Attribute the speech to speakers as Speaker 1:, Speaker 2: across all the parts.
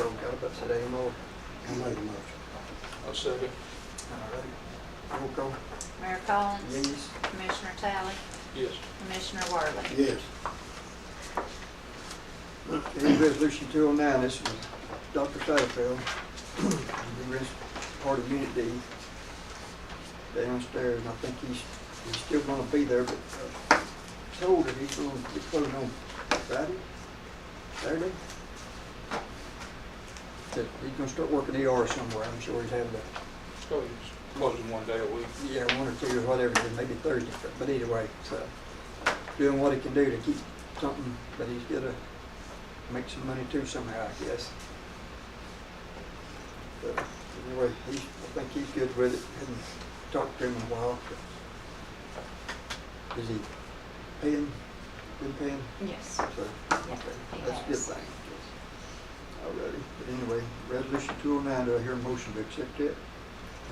Speaker 1: today, Lord.
Speaker 2: I made a motion.
Speaker 3: I'll second.
Speaker 1: All right. Roll call.
Speaker 4: Mayor Collins.
Speaker 1: Yes.
Speaker 4: Commissioner Talley.
Speaker 3: Yes.
Speaker 4: Commissioner Worley.
Speaker 2: Yes.
Speaker 1: Okay, resolution two oh nine, this is Dr. Satterfield. He was part of Unit D downstairs, and I think he's, he's still gonna be there, but uh, told that he's gonna be closed on Friday, Saturday. That he's gonna start working ER somewhere, I'm sure he's having to
Speaker 3: Oh, yes. Closing one day a week.
Speaker 1: yeah, one or two, or whatever, and maybe Thursday, but- but either way, so, doing what he can do to keep something, but he's gotta make some money too somehow, I guess. But anyway, he's, I think he's good with it, hadn't talked to him in a while, but is he paying, been paying,
Speaker 4: Yes.
Speaker 1: so.
Speaker 4: Yes,
Speaker 1: Okay,
Speaker 4: he
Speaker 1: That's a good
Speaker 4: has.
Speaker 1: thing. Alrighty, but anyway, resolution two oh nine, do I hear a motion to accept it?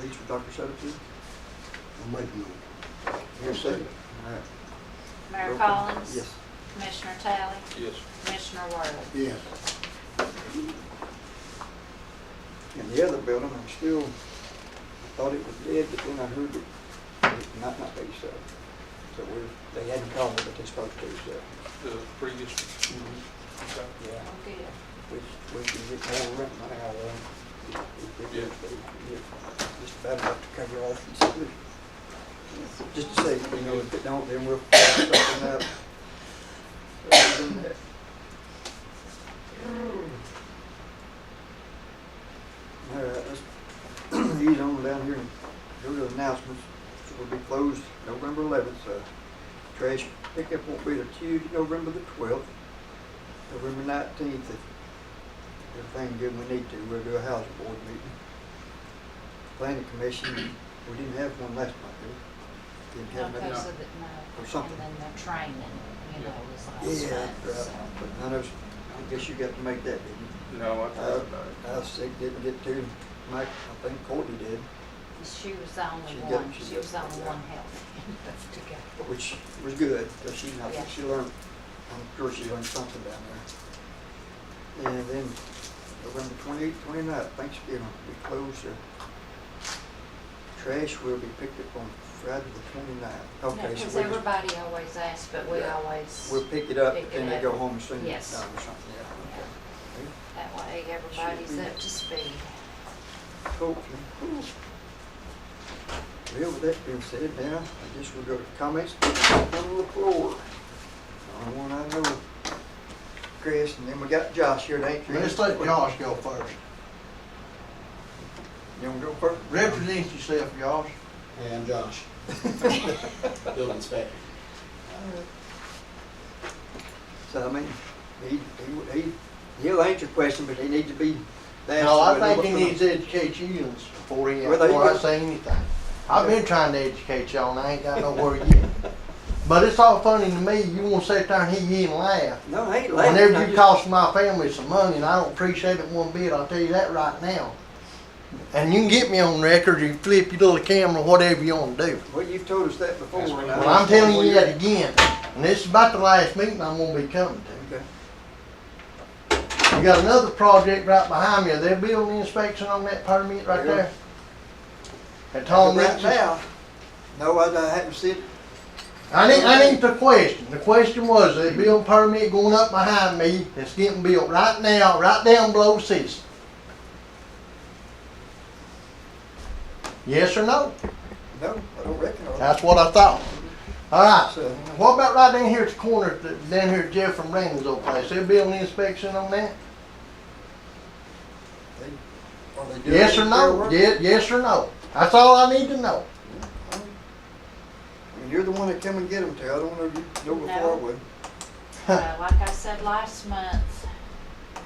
Speaker 1: Please, for Dr. Satterfield,
Speaker 2: I made a motion.
Speaker 1: here a second. All right.
Speaker 4: Mayor
Speaker 1: Roll call.
Speaker 4: Collins.
Speaker 1: Yes.
Speaker 4: Commissioner Talley.
Speaker 3: Yes.
Speaker 4: Commissioner Worley.
Speaker 2: Yes.
Speaker 1: And the other building, I'm still, I thought it was dead, but then I heard it, it might not be so. So we're, they hadn't called me, but they supposed to, so.
Speaker 3: The previous. Okay.
Speaker 1: Yeah,
Speaker 4: Oh, good.
Speaker 1: we, we can get more rent now, uh, if it is, but we can get just about enough to cover all the expenses. Just to say, you know, if it don't, then we'll figure something out. Other than that. All right, let's, he's on down here and go to announcements. It will be closed November eleventh, so trash pickup won't be till Tuesday, November the twelfth. November nineteenth, if everything good we need to, we'll do a house board meeting. Planning commission, we didn't have one last month, did we? Didn't
Speaker 4: No,
Speaker 1: have nothing.
Speaker 4: because of the,
Speaker 1: Or
Speaker 4: no,
Speaker 1: something.
Speaker 4: and then the training, you know, was last
Speaker 1: Yeah,
Speaker 4: month,
Speaker 1: right,
Speaker 4: so.
Speaker 1: but none of us, I guess you got to make that, didn't you?
Speaker 3: No, I
Speaker 1: Uh,
Speaker 3: thought about it.
Speaker 1: I sick, didn't get to, Mike, I think Courtney did,
Speaker 4: She was the only
Speaker 1: She
Speaker 4: one,
Speaker 1: got- she
Speaker 4: she was the
Speaker 1: got-
Speaker 4: only
Speaker 1: yeah.
Speaker 4: one healthy to go.
Speaker 1: which was good, because she, I think
Speaker 4: Yeah.
Speaker 1: she learned, I'm sure she learned something down there. And then November twenty-eighth, twenty-ninth, Thanksgiving, we close the trash will be picked up on Friday the twenty-ninth. Okay, so
Speaker 4: Because
Speaker 1: we just,
Speaker 4: everybody always asks, but we
Speaker 1: Yeah.
Speaker 4: always,
Speaker 1: we'll pick it up,
Speaker 4: pick
Speaker 1: and
Speaker 4: it
Speaker 1: they
Speaker 4: up.
Speaker 1: go home and send it down or
Speaker 4: Yes.
Speaker 1: something,
Speaker 4: Yeah.
Speaker 1: yeah, okay.
Speaker 4: that way everybody's up to speed.
Speaker 1: Hopefully. Well, with that being said, now, I guess we'll go to comments on the floor. Only one I know, Chris, and then we got Josh here, ain't you?
Speaker 5: Let's let Josh go first.
Speaker 1: You wanna go first?
Speaker 5: Represent yourself, Josh.
Speaker 2: And I'm Josh, building inspector.
Speaker 1: So, I mean, he, he, he, he'll answer question, but he needs to be. asked
Speaker 5: No, I
Speaker 1: whether
Speaker 5: think
Speaker 1: what-
Speaker 5: he needs to educate you before he,
Speaker 1: Well, there you
Speaker 5: before I
Speaker 1: go.
Speaker 5: say anything. I've been trying to educate y'all and I ain't got nowhere yet. But it's all funny to me, you wanna sit there and he and laugh.
Speaker 1: No, I ain't laughing. I
Speaker 5: Whenever you
Speaker 1: just-
Speaker 5: cost my family some money and I don't appreciate it one bit, I'll tell you that right now. And you can get me on record, you flip your little camera, whatever you wanna do.
Speaker 1: Well, you've told us that before.
Speaker 3: That's
Speaker 1: and I
Speaker 3: right.
Speaker 5: Well, I'm telling you
Speaker 1: understand
Speaker 5: that again, and this is about the last meeting I'm gonna be coming to.
Speaker 1: where you're- Okay,
Speaker 5: You got another project right behind you. They're building inspection on that permit right
Speaker 1: Yeah.
Speaker 5: there. At Tom
Speaker 1: Right
Speaker 5: Rich's.
Speaker 1: now, no, I, I haven't seen,
Speaker 5: I need, I need the question. The question was, they building permit going up behind me that's getting built right now, right down below Cecil. Yes or no?
Speaker 1: no, I don't reckon. I-
Speaker 5: That's what I thought. All right.
Speaker 1: So-
Speaker 5: What about right down here at the corner, th- down here at Jeff from Randall's old place? They building inspection on that?
Speaker 1: Are they doing
Speaker 5: Yes or
Speaker 1: any fair
Speaker 5: no?
Speaker 1: work?
Speaker 5: Yes, yes or no? That's all I need to know.
Speaker 1: I mean, you're the one that come and get them, Terry. I don't know if you know before I
Speaker 4: No.
Speaker 1: would.
Speaker 4: Uh, Like I said last month. uh,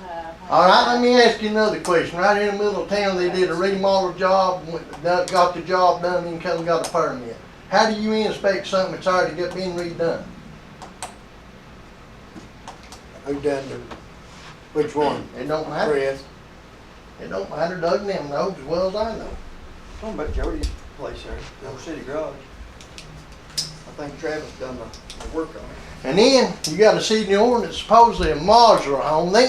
Speaker 4: when
Speaker 5: All right,
Speaker 4: I-
Speaker 5: let me ask you another question. Right in the middle of town, they did a remodel job, went- done- got the job done, then come and got a permit. How do you inspect something that's already got been redone?
Speaker 2: Who done the, which one?
Speaker 5: It don't matter.
Speaker 2: Chris?
Speaker 5: It don't matter. Doug and them knows as well as I know.
Speaker 1: Talking about Jody's place there, the old city garage. I think Travis done the, the work on it.
Speaker 5: And then you gotta see in the ordinance, supposedly a modular home, they